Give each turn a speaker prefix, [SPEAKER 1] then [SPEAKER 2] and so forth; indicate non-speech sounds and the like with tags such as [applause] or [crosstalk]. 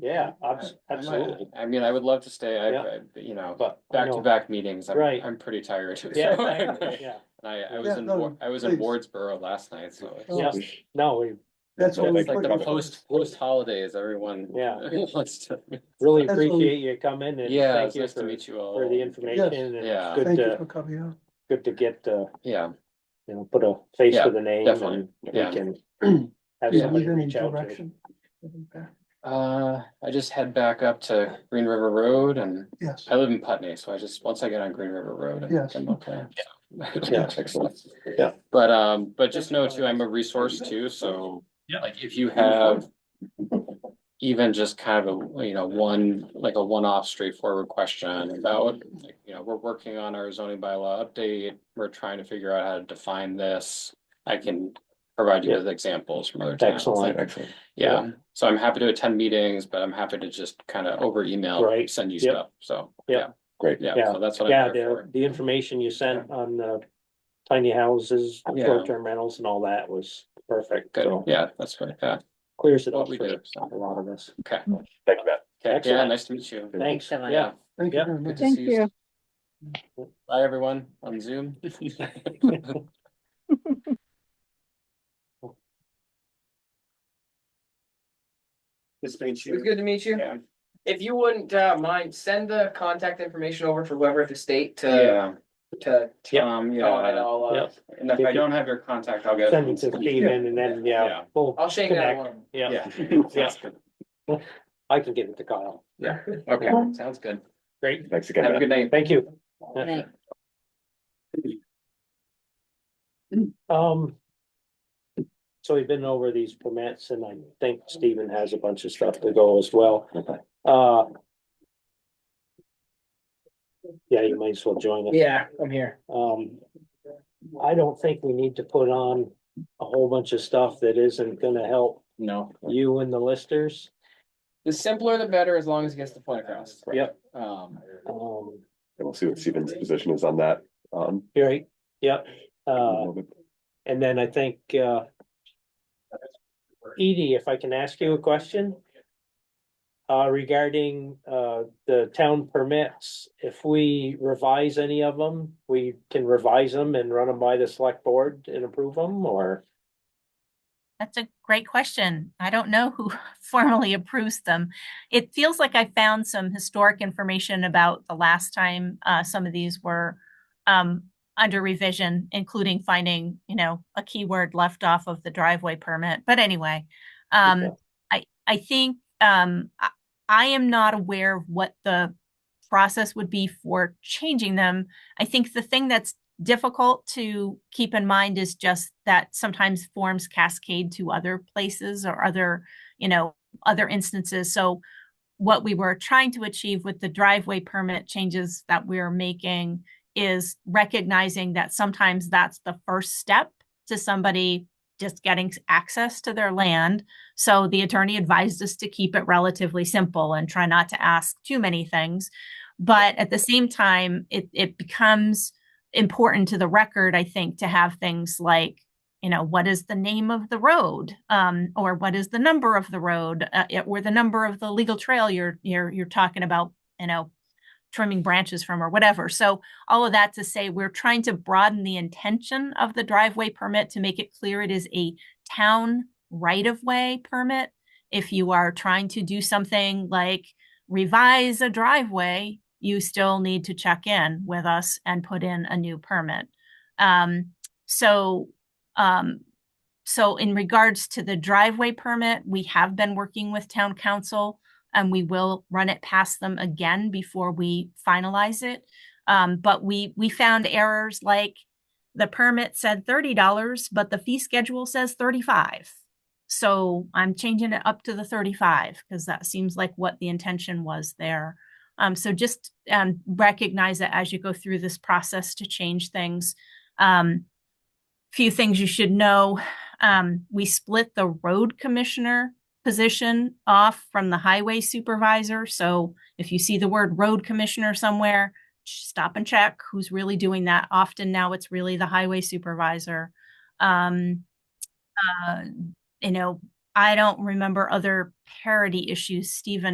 [SPEAKER 1] Yeah, abs-
[SPEAKER 2] I might-
[SPEAKER 1] absolutely,
[SPEAKER 2] I mean, I would love to stay,
[SPEAKER 1] Yeah.
[SPEAKER 2] I, I- you know,
[SPEAKER 1] but. I
[SPEAKER 2] back to
[SPEAKER 1] know-
[SPEAKER 2] back meetings, I'm,
[SPEAKER 1] Right.
[SPEAKER 2] I'm pretty tired. [laughs] so
[SPEAKER 1] [laughs] Yeah,
[SPEAKER 2] I-
[SPEAKER 3] [laughs]
[SPEAKER 1] yeah,
[SPEAKER 2] I, I was
[SPEAKER 3] Yeah,
[SPEAKER 2] in,
[SPEAKER 3] no,
[SPEAKER 2] Wa- I was in
[SPEAKER 3] please.
[SPEAKER 2] Wardsboro last night, so.
[SPEAKER 3] Oh.
[SPEAKER 2] it's-
[SPEAKER 1] yes, no, we
[SPEAKER 3] That's all. we
[SPEAKER 2] It's like the
[SPEAKER 3] put-
[SPEAKER 2] post, post holidays, everyone. [laughs]
[SPEAKER 1] Yeah.
[SPEAKER 2] wants to-
[SPEAKER 1] really
[SPEAKER 3] That's what we-
[SPEAKER 1] appreciate you coming and
[SPEAKER 2] Yeah,
[SPEAKER 1] thank
[SPEAKER 2] it's
[SPEAKER 1] you
[SPEAKER 2] nice to
[SPEAKER 1] for,
[SPEAKER 2] meet you all.
[SPEAKER 1] for the information. and
[SPEAKER 2] Yeah.
[SPEAKER 1] it's Good
[SPEAKER 3] Thank you
[SPEAKER 1] to,
[SPEAKER 3] for coming out.
[SPEAKER 1] good to get, uh,
[SPEAKER 2] Yeah,
[SPEAKER 1] you know, put a face
[SPEAKER 2] Yeah,
[SPEAKER 1] to the name
[SPEAKER 2] definitely.
[SPEAKER 1] and we
[SPEAKER 2] Yeah.
[SPEAKER 3] [clears throat]
[SPEAKER 1] can have
[SPEAKER 2] Yeah.
[SPEAKER 1] somebody
[SPEAKER 3] Need any
[SPEAKER 1] uh, reach out to. you.
[SPEAKER 3] direction?
[SPEAKER 2] uh, I just head back up to Green River Road and
[SPEAKER 3] Yes,
[SPEAKER 2] I live in Putney, so I just, once I get on Green River Road. I think
[SPEAKER 3] Yes.
[SPEAKER 2] I'm okay. [laughs]
[SPEAKER 1] Yeah.
[SPEAKER 2] Excellent.
[SPEAKER 1] Yeah.
[SPEAKER 2] But, um, but just know too, I'm a resource too, so.
[SPEAKER 4] Yeah.
[SPEAKER 2] Like if you have. Even just kind of a, you know, one, like a one-off straightforward question about, like, you know, we're working on our zoning bylaw update. We're trying to figure out how to define this. I can provide you with examples from other towns.
[SPEAKER 1] Excellent.
[SPEAKER 2] Excellent. Yeah, so I'm happy to attend meetings, but I'm happy to just kind of over email,
[SPEAKER 1] Right.
[SPEAKER 2] send you
[SPEAKER 1] Yep.
[SPEAKER 2] stuff, so.
[SPEAKER 1] Yep.
[SPEAKER 2] Great. Yeah,
[SPEAKER 1] Yeah.
[SPEAKER 2] so that's what
[SPEAKER 1] Yeah,
[SPEAKER 2] I'm there for.
[SPEAKER 1] the, the information you sent on the tiny houses,
[SPEAKER 2] Yeah.
[SPEAKER 1] short-term rentals and all that was perfect.
[SPEAKER 2] Good,
[SPEAKER 1] So
[SPEAKER 2] yeah, that's what, yeah,
[SPEAKER 1] clears it
[SPEAKER 2] What
[SPEAKER 1] up
[SPEAKER 2] we
[SPEAKER 1] for
[SPEAKER 2] do, so.
[SPEAKER 1] a lot of us.
[SPEAKER 2] okay.
[SPEAKER 5] Thank you, Matt.
[SPEAKER 2] Okay, yeah,
[SPEAKER 1] Excellent.
[SPEAKER 2] nice to meet you.
[SPEAKER 1] Thanks,
[SPEAKER 6] so much.
[SPEAKER 1] yeah.
[SPEAKER 3] thank you
[SPEAKER 1] Yeah.
[SPEAKER 3] very
[SPEAKER 2] Good
[SPEAKER 3] much.
[SPEAKER 2] to
[SPEAKER 7] Thank
[SPEAKER 2] see Bye, everyone on Zoom.
[SPEAKER 1] This means
[SPEAKER 8] It was good to meet you.
[SPEAKER 2] Yeah.
[SPEAKER 8] If you wouldn't uh mind, send the contact information over for whoever at the state to
[SPEAKER 2] Yeah,
[SPEAKER 8] to.
[SPEAKER 1] Yep.
[SPEAKER 2] um,
[SPEAKER 8] Tom and
[SPEAKER 2] Uh, yeah,
[SPEAKER 8] I'll uh,
[SPEAKER 1] Yep.
[SPEAKER 2] and if I don't have your contact, I'll get.
[SPEAKER 1] Send it to Steven and then, yeah,
[SPEAKER 2] Yeah.
[SPEAKER 1] we'll
[SPEAKER 8] I'll shake that
[SPEAKER 1] Connect.
[SPEAKER 8] one.
[SPEAKER 1] yeah,
[SPEAKER 2] [laughs] Yeah.
[SPEAKER 1] Yeah. I can get it to Kyle.
[SPEAKER 2] Okay, sounds good.
[SPEAKER 1] Great,
[SPEAKER 5] Thanks again,
[SPEAKER 2] Have a
[SPEAKER 5] Matt.
[SPEAKER 2] good night.
[SPEAKER 1] thank you.
[SPEAKER 6] Thank-
[SPEAKER 1] Um. So we've been over these permits and I think Steven has a bunch of stuff to go as well. Uh. Yeah, you might as well join us.
[SPEAKER 8] Yeah, I'm here.
[SPEAKER 1] Um, I don't think we need to put on a whole bunch of stuff that isn't gonna help
[SPEAKER 2] No,
[SPEAKER 1] you and the listers.
[SPEAKER 2] the simpler the better, as long as it gets the point across.
[SPEAKER 1] Yep.
[SPEAKER 2] Um,
[SPEAKER 1] Um,
[SPEAKER 5] And we'll see what Steven's position is on that. Um,
[SPEAKER 1] right, yep, uh,
[SPEAKER 5] moment.
[SPEAKER 1] and then I think, uh. Edie, if I can ask you a question? Uh, regarding, uh, the town permits, if we revise any of them, we can revise them and run them by the select board and approve them, or?
[SPEAKER 6] That's a great question. I don't know who formally approves them. It feels like I found some historic information about the last time uh, some of these were um, under revision, including finding, you know, a keyword left off of the driveway permit. But anyway, um,
[SPEAKER 1] Okay.
[SPEAKER 6] I I think um, I, I am not aware of what the process would be for changing them. I think the thing that's difficult to keep in mind is just that sometimes forms cascade to other places or other, you know, other instances. So what we were trying to achieve with the driveway permit changes that we're making is recognizing that sometimes that's the first step to somebody just getting access to their land. So the attorney advised us to keep it relatively simple and try not to ask too many things. But at the same time, it, it becomes important to the record, I think, to have things like, you know, what is the name of the road, um, or what is the number of the road, uh, it- or the number of the legal trail you're you're you're talking about, you know, trimming branches from or whatever. So all of that to say, we're trying to broaden the intention of the driveway permit to make it clear it is a town right of way permit. If you are trying to do something like revise a driveway, you still need to check in with us and put in a new permit. Um, so, um, so in regards to the driveway permit, we have been working with town council and we will run it past them again before we finalize it. Um, but we, we found errors like the permit said thirty dollars, but the fee schedule says thirty-five. So I'm changing it up to the thirty-five because that seems like what the intention was there. Um, so just um, recognize that as you go through this process to change things. Um, few things you should know. Um, we split the road commissioner position off from the highway supervisor. So if you see the word road commissioner somewhere, sh- stop and check who's really doing that. Often now it's really the highway supervisor. Um, uh, you know, I don't remember other parity issues. Stephen